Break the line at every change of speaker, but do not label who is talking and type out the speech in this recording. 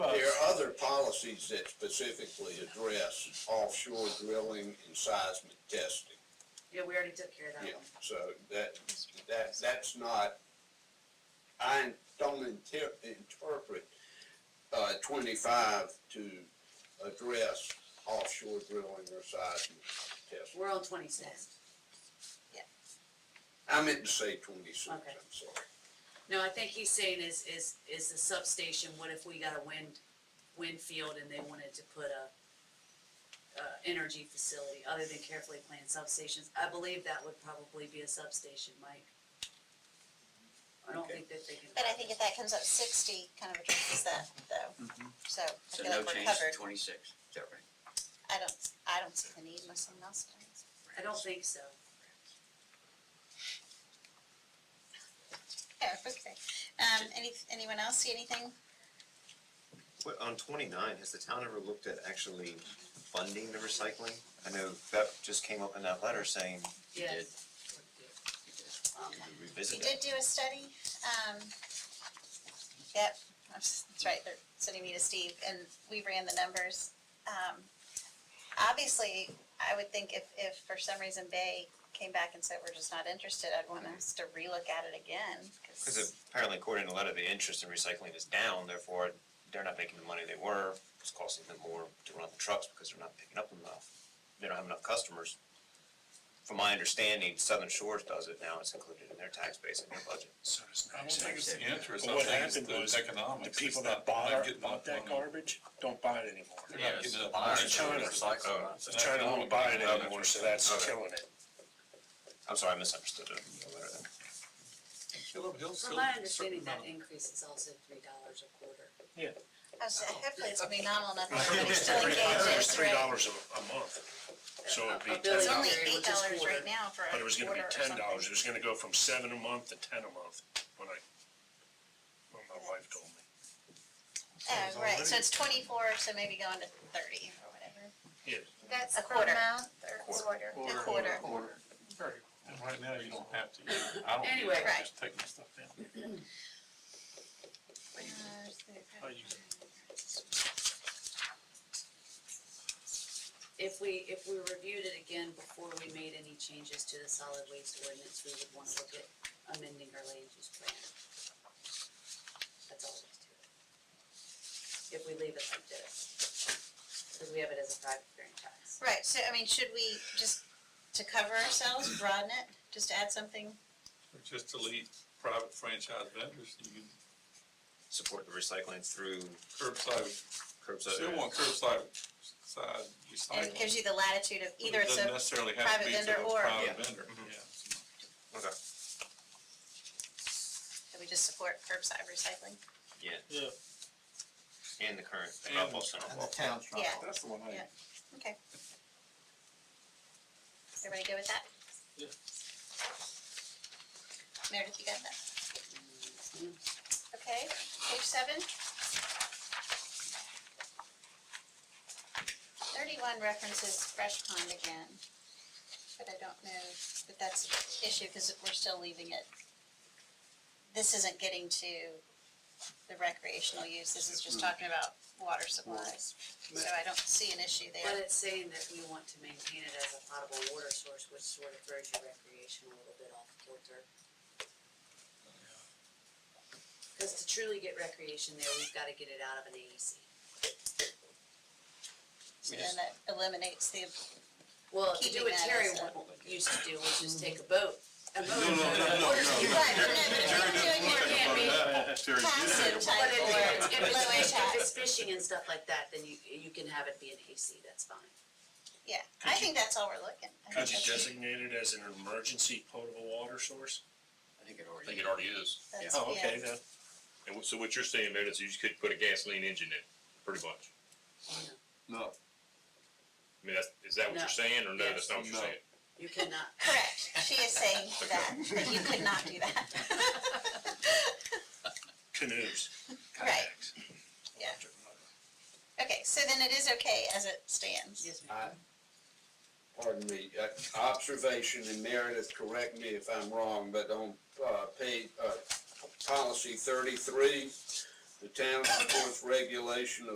policies that specifically address offshore drilling and seismic testing.
Yeah, we already took care of that
Yeah,
one.
so that, that, that's not, I don't inter- interpret, uh, twenty-five to address offshore drilling or seismic testing.
We're on twenty-six.
I meant to say twenty-six, I'm
Okay.
sorry.
No, I think he's saying is, is, is the substation, what if we got a wind, wind field and they wanted to put a, uh, energy facility other than carefully planned substations? I believe that would probably be a substation, Mike. I don't
Okay.
think that they can.
But I think if that comes up sixty, kind of addresses that though, so I
Mm-hmm. So
feel
no
like we're
change to
covered.
twenty-six, is that right?
I don't, I don't see the need unless someone else does.
I don't think so.
Yeah, Oh, okay. Um, any, anyone else see anything?
Well, on twenty-nine, has the town ever looked at actually funding the recycling? I know that just came up in that letter saying
You did.
Yes.
You did.
Um,
to
You
revisit
did
that.
do a study, um, yep, that's that's right, they're sending me to Steve, and we ran the numbers. Um, obviously, I would think if, if for some reason Bay came back and said, we're just not interested, I'd want us to relook at it again,
Because apparently according to the letter, the interest in recycling is down, therefore they're not making the money they were. It's costing them more to run the trucks because they're not picking up enough. They don't have enough customers. From my understanding, Southern Shores does it now. It's included in their tax base and their budget.
So does
I don't think it's the
Yeah.
interest,
But
I
what
think it's
happened was
those economics.
The
It's
people
not-
that bought,
not getting
bought
up
that
on-
garbage don't buy it anymore.
They're not getting up on
It's
it.
China.
It's like, uh,
So China won't buy it anymore, so that's
Okay.
killing it.
I'm sorry, I misunderstood the the letter then.
Kill 'em, he'll
From
sell
my
it a certain
understanding, that
amount.
increase is also three dollars a quarter.
I was, hopefully it's gonna be nominal, enough. everybody's still engaged,
It's
it's
three
right.
dollars a, a month, so it'd be
A- a
ten
billion.
It's
dollars,
only
Which
eight
is
dollars
quarter.
right now for
but it was
a
gonna be
quarter or
ten dollars,
something.
it was gonna go from seven a month to ten a month, when I, when my wife told me.
Oh, right, so it's twenty-four, so maybe going to thirty or whatever.
That's
A
per
quarter.
month or quarter?
A quarter.
Right. And right now, you don't have to, I don't,
Anyway.
care. I'm just taking stuff down. How you-
If we, if we reviewed it again before we made any changes to the solid waste ordinance, we would wanna look at amending our land use plan. That's all there is to it. If we leave it like this, cause we have it as a private franchise.
Right, so I mean, should we just, to cover ourselves, broaden it, just add something?
Just delete private franchise vendors, you can
Support the recycling through
curbside,
curbside.
still want curbside, side
And it gives
recycling.
you the latitude of
but
either it's
It doesn't
a,
necessarily have
private
to be to
vendor
the
or-
private
Yeah.
vendor,
Mhm.
yeah.
Okay,
that we just support curbside recycling.
yeah.
Yeah.
And the current
And-
drop-off center.
And the town's
Uh-huh.
not.
Yeah.
That's the one
Yeah. Okay. Everybody good with that?
Yeah.
Meredith, you got that? Okay, page seven. Thirty-one references fresh pond again, but I don't know that that's an issue because we're still leaving it. This isn't getting to the recreational use, this is just talking about water supplies. So I don't see an issue
But
there.
it's saying that we want to maintain it as a potable water source, which sort of throws your recreation a little bit off kilter. Cause to truly get recreation there, we've gotta get it out of an E AEC.
So then that eliminates the,
Well, to do
Keeping
what
that
Terry
as a-
wa- used to do, which is take a boat, a motor boat.
no, no, no, no.
Right, but no, but if
Jerry
we're
doesn't
doing
look
it,
at
can't
it
be
like that. Jerry, you
passive
think about
type
But if it's, if it's fishing,
or low
if
impact.
it's fishing and stuff like that, then you, you can have it be an AC, that's fine.
Yeah, I think that's all we're looking. I
Could you
think
designate it as an emergency potable water source?
I think it already.
already is.
that's-
Oh,
yeah.
okay, then.
And wh- so what you're saying, man, is you just could put a gasoline engine in, it, pretty much.
No,
I mean, that's, is that what
No.
you're saying, or no,
Yes.
that's not what you're
No.
saying?
You cannot,
Correct, she is saying that, that you could not do that.
Canoes.
Right,
kayaks.
Yeah. okay, so then it is okay as it stands.
yes, ma'am.
I, pardon me, uh, observation, and Meredith, correct me if I'm wrong, but on, uh, page, uh, policy thirty-three, the town supports regulation of